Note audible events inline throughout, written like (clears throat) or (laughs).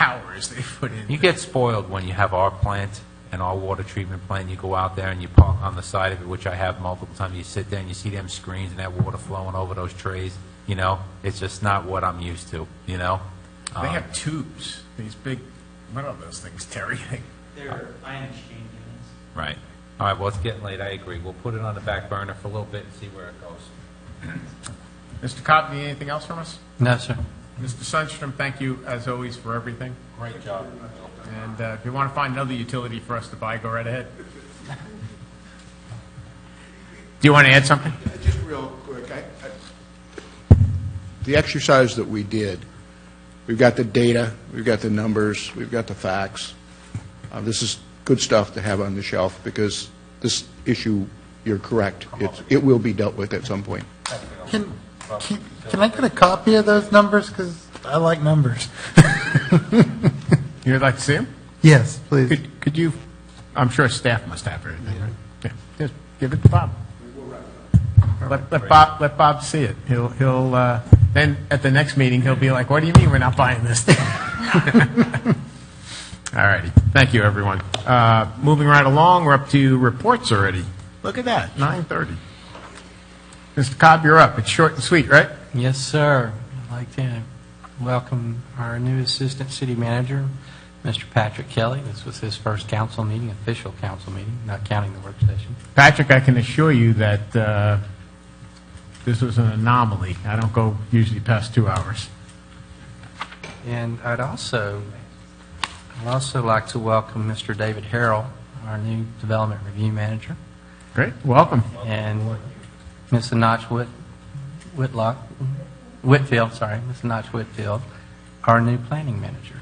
towers they put in. You get spoiled when you have our plant and our water treatment plant, you go out there and you park on the side of it, which I have multiple times, you sit there and you see them screens and that water flowing over those trays, you know? It's just not what I'm used to, you know? Um, They have tubes, these big, what are those things, Terry? (laughs) They're ion exchange units. Right. All right, well, it's getting late, I agree. We'll put it on the back burner for a little bit and see where it goes. Mr. Cobb, need anything else from us? No, sir. Mr. Sundstrom, thank you as always for everything. Great job. And uh, if you want to find another utility for us to buy, go right ahead. Do you want to add something? Just real quick, I, I- the exercise that we did, we've got the data, we've got the numbers, we've got the facts. Uh, This is good stuff to have on the shelf, because this issue, you're correct, it's, it will be dealt with at some point. Can, can can I get a copy of those numbers? Because I like numbers. You'd like to see him? Yes, please. Could could you, I'm sure staff must have everything, right? Yeah, Just give it to Bob. Let let Bob, let Bob see it. He'll, he'll, uh, then at the next meeting, he'll be like, what do you mean we're not buying this thing? (laughs) All righty, thank you, everyone. Uh, Moving right along, we're up to reports already. Look at that, 9:30. Mr. Cobb, you're up. It's short and sweet, right? Yes, sir. I'd like to welcome our new Assistant City Manager, Mr. Patrick Kelly. This was his first council meeting, official council meeting, not counting the work session. Patrick, I can assure you that uh, this was an anomaly. I don't go usually past two hours. And I'd also, I'd also like to welcome Mr. David Harrell, our new Development Review Manager, Great, welcome. and Ms. Notch Whit, Whitlock, Whitfield, sorry, Ms. Notch Whitfield, our new Planning Manager.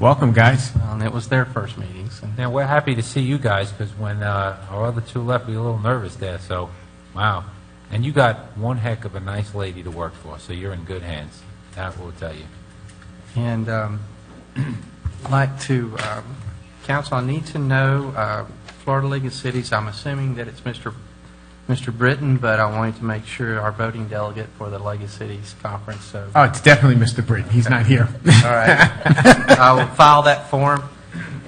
Welcome, guys. And it was their first meetings, and Now, we're happy to see you guys, because when uh, our other two left, we were a little nervous there, so, wow. And you got one heck of a nice lady to work for, so you're in good hands. That will tell you. And um, (clears throat) I'd like to, um, council, I need to know, uh, Florida League of Cities, I'm assuming that it's Mr. Mr. Britton, but I wanted to make sure our voting delegate for the League of Cities Conference, so, all Oh, it's definitely Mr. Britton. He's not here. right. I will file that form.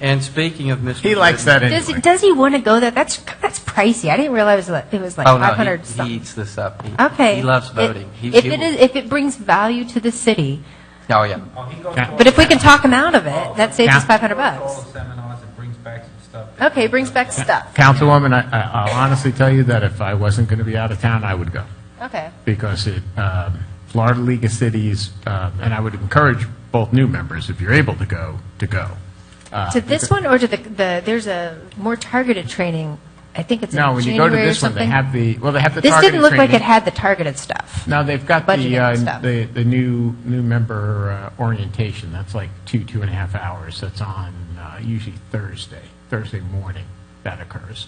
And speaking of Mr. (laughs) He likes that Does, anyway. does he want to go there? That's, that's pricey. I didn't realize that it was like Oh, no, 500 he- something. he eats this up. He- Okay. He loves It- voting. He- If he it will- is, if it brings value to the city, Oh, yeah. but if we can talk him out of it, that saves us 500 bucks. seminars and brings back some stuff. Okay, brings back stuff. Councilwoman, I- I- I'll honestly tell you that if I wasn't going to be out of town, I would go. Okay. Because it, um, Florida League of Cities, uh, and I would encourage both new members, if you're able to go, to go. Uh, To this one or to the, the, there's a more targeted training. I think it's in No, when you go to January or this one, they something. have the, well, they have the This targeted didn't look like training. it had the targeted stuff. No, they've got the, budgeting uh, stuff. the, the new, new member uh, orientation, that's like two, two and a half hours, that's on uh, usually Thursday, Thursday morning that occurs.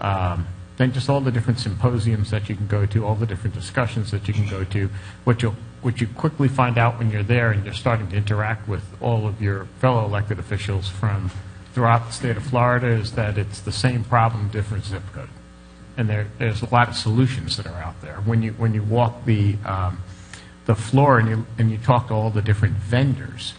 Um, Then just all the different symposiums that you can go to, all the different discussions that you can go to, what you'll, what you quickly find out when you're there and you're starting to interact with all of your fellow elected officials from throughout the state of Florida is that it's the same problem, different zip code and there, there's a lot of solutions that are out there. When you when you walk the um, the floor and you and you talk to all the different vendors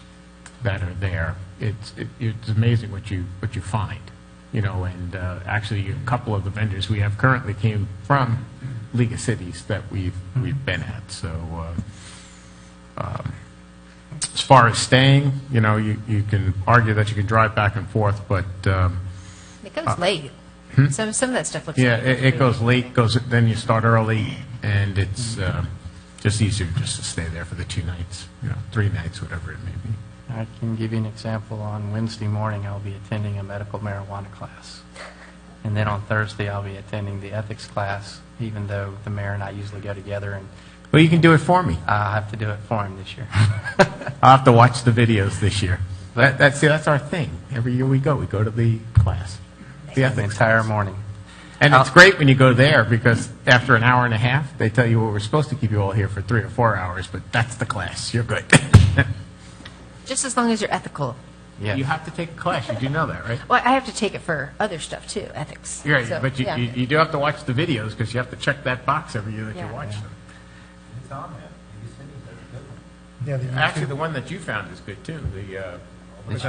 that are there, it's it, it's amazing what you what you find, you know. And uh, actually, a couple of the vendors we have currently came from League of Cities that we've we've been at. So. Uh, as far as staying, you know, you, you can argue that you can drive back and forth, but um, It goes late. Some, some of that stuff looks. hmm? Yeah, late. it, it goes late, goes, then you start early, and it's uh, just easier just to stay there for the two nights, you know, three nights, whatever it may be. I can give you an example. On Wednesday morning, I'll be attending a medical marijuana class. And then on Thursday, I'll be attending the ethics class, even though the mayor and I usually go together, and Well, you can do it for me. I have to do it for him this year. I'll have to watch the videos this year. That, that's, see, that's our thing. Every year we go, we go to the class, the The ethics. entire morning. And it's great when you go there, because after an hour and a half, they tell you, well, we're supposed to keep you all here for three or four hours, but that's the class, you're good. Just as long as you're ethical. You Yes. have to take a class, you do know that, right? Well, I have to take it for other stuff too, ethics. Right, So, but you, yeah. you, you do have to watch the videos because you have to check that box every year that Yeah. you watch them. It's on there. You said it was a good one. Actually, the one that you found is good too. The uh, It's